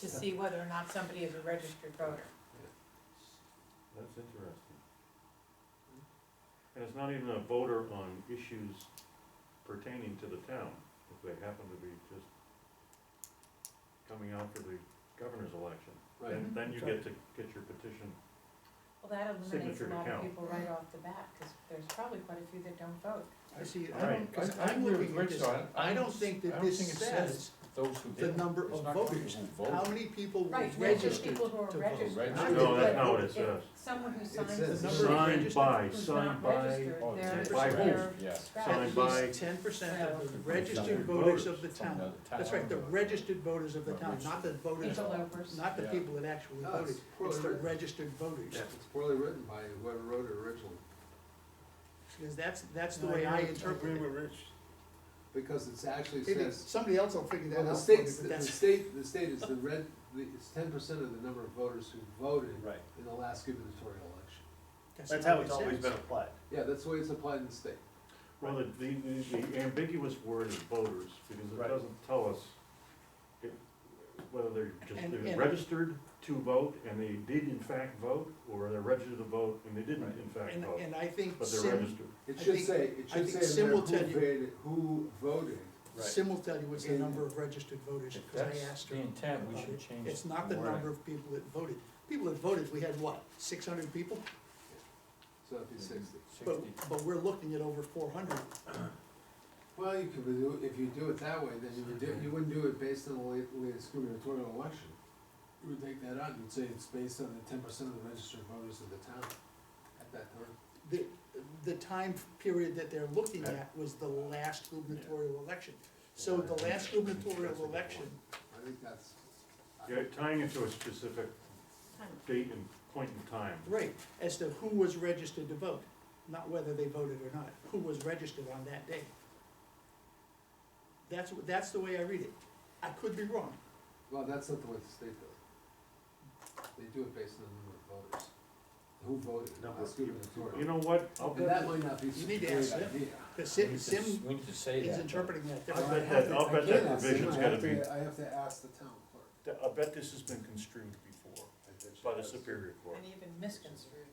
to see whether or not somebody is a registered voter. That's interesting. And it's not even a voter on issues pertaining to the town, if they happen to be just coming out for the governor's election. Then, Mhm. then you get to get your petition. Well, that eliminates a Signature to lot of count. people right off the bat, because there's probably quite a few that don't vote. I see, All I don't, right. because I- I I'm agree looking with at Rich, this, though. I- I don't think I that don't this think it says says those who the did. number It's of not voters. people who How voted. many people were Right, there's just registered to people who are vote? registered. Registered. I No, would that's bet- not what it If says. Someone who It signs. says the number of petition Signed registered- by, who's signed not by, registered, Oh, they're- by who? they're- Yeah. Signed At by- least ten percent of the registered Registered voters of the voters. town. Another That's right, the town. registered voters of the Not town, not the voters, Interlopers. not the Yeah. people that actually No, voted. it's It's the poorly written. registered voters. Yeah, it's poorly written by whoever wrote it originally, Because that's, that's the way I interpret it. Rich. because it's actually Maybe says, Somebody else will figure well, that the out for me, state's, but the that's, state, the state is the red, the, it's ten percent of the number of voters who voted Right. in the last gubernatorial election. That's not how what it's it always says. been applied. Yeah, that's the way it's applied in the state. well, the, the, the ambiguous word is voters, because it Right. doesn't tell us if- whether they're just, And- they're and- registered to vote and they did in fact vote, or they're registered to vote and they didn't in fact And, vote, and I think but they're Sim, registered. It I should think- say, it I should think say Sim in there will who tell you- voted, who voted. Sim will tell you what's the And- number of registered voters, If because I that's asked her. the intent, we about should it. change. It's not the wording. number of people that voted. People that voted, we had what, six hundred people? So it'd be sixty. But, Sixty. but we're looking at over four hundred. Well, you could do, if you do it that way, then you would do, you wouldn't do it based on the la- latest gubernatorial election. You would take that out, you'd say it's based on the ten percent of the registered voters of the town at that time. The, the time period that they're looking at was the last gubernatorial election. So the last gubernatorial election, I think that's. Yeah, tying it to a specific date and point in time. right, as to who was registered to vote, not whether they voted or not, who was registered on that day. That's, wh- that's the way I read it. I could be wrong. Well, that's not the way the state does it. They do it based on the number of voters, who voted, Number last of people. You gubernatorial. know what, I'll And that bet, might not be such You a need to great ask them. idea. The We Sim, need to, s- Sim we need to say is that. interpreting that I'll differently. bet that, I'll bet that Again, I provision's said I gotta have be, to- I have to ask the town clerk. I bet this has been construed before I bet she by the does. Superior Court. And even misconstrued.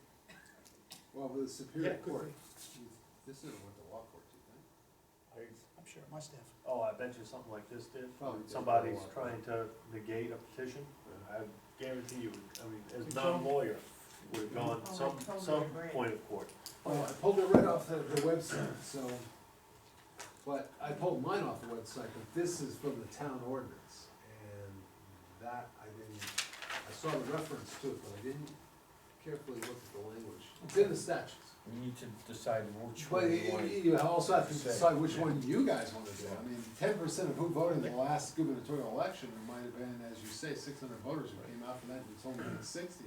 Well, the Yeah, Superior it could Court, be. this is what the law court, do you think? I, I'm sure it must have. oh, I bet you something like this did. Probably did. Somebody's trying to negate a petition, I guarantee you, I mean, as a non-lawyer, would have gone Oh, I some, totally some agree. point of court. Well, I pulled it right off the, the website, so, but I pulled mine off the website, but this is from the town ordinance. And that, I didn't, I saw the reference to it, but I didn't carefully look at the language. It's in the statutes. We need to decide which But one you- we want. you, you also have to Say, decide which yeah. one you guys wanna do. I mean, ten percent of who voted in the last gubernatorial election, it might have been, as you say, six hundred voters who came out for that, and it's only been sixty.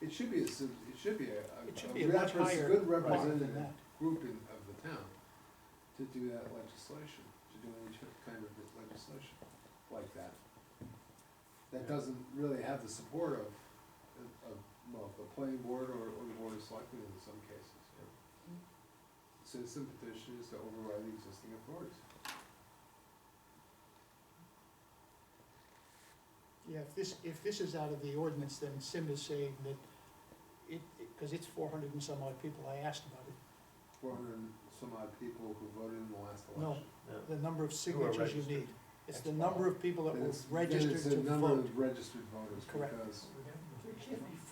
It should be a, sim- it should be a, a- It should a be a much repres- higher good mark than representative that. group in, of the town to do that legislation, to do any kind of legislation like that. That doesn't really have the support of, of, well, the planning board or, or the board of selectmen in some cases. Citizen petition is to override the existing authorities. Yeah, if this, if this is out of the ordinance, then Sim is saying that it, because it's four hundred and some odd people I asked about it. Four hundred and some odd people who voted in the last No. election. Yeah. The number of signatures you registered. need. It's the number of people that Then were it's- then registered it's to the number vote. of registered voters, Correct. because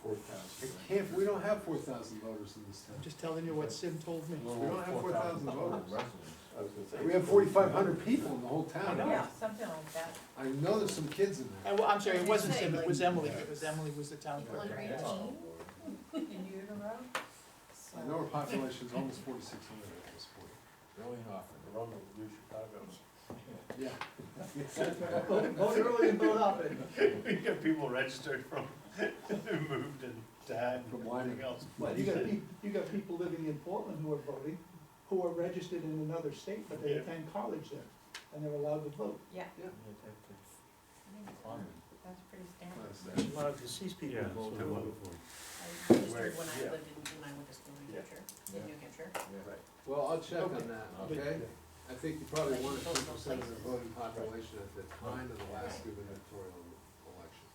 Four thousand. it can't, we don't have four thousand voters in this town. I'm just telling you what Sim told me. we don't have 4,000 voters. Residents. I was gonna say- We have forty-five hundred people in the whole I town. know. Yeah, something like that. I know there's some kids in I, there. am sorry, it wasn't Say, Sim, it like- was Emily. It was Emily was the town People clerk. under Yeah. eighteen in utero, so. I know our population's almost forty-six hundred at this point. Really often. The Rumble, New Chicago. Yeah. Vote early and vote often. We got people registered from, who moved and died From and Wyoming. everything else. Well, you got people, you got people living in Portland who are voting, who are registered in another state, but they Yeah. attend college there, and they're allowed to vote. Yeah, Yeah, that- I think that's common. that's pretty standard. Well, deceased yeah, that's what I wanted for. I registered when I Yeah. lived in, when I went to school in New Yeah. Hampshire, Yeah. in New Hampshire. Yeah. Well, I'll check on that, okay? I think you probably Like wanted both ten percent of the places. voting population at the time of the last gubernatorial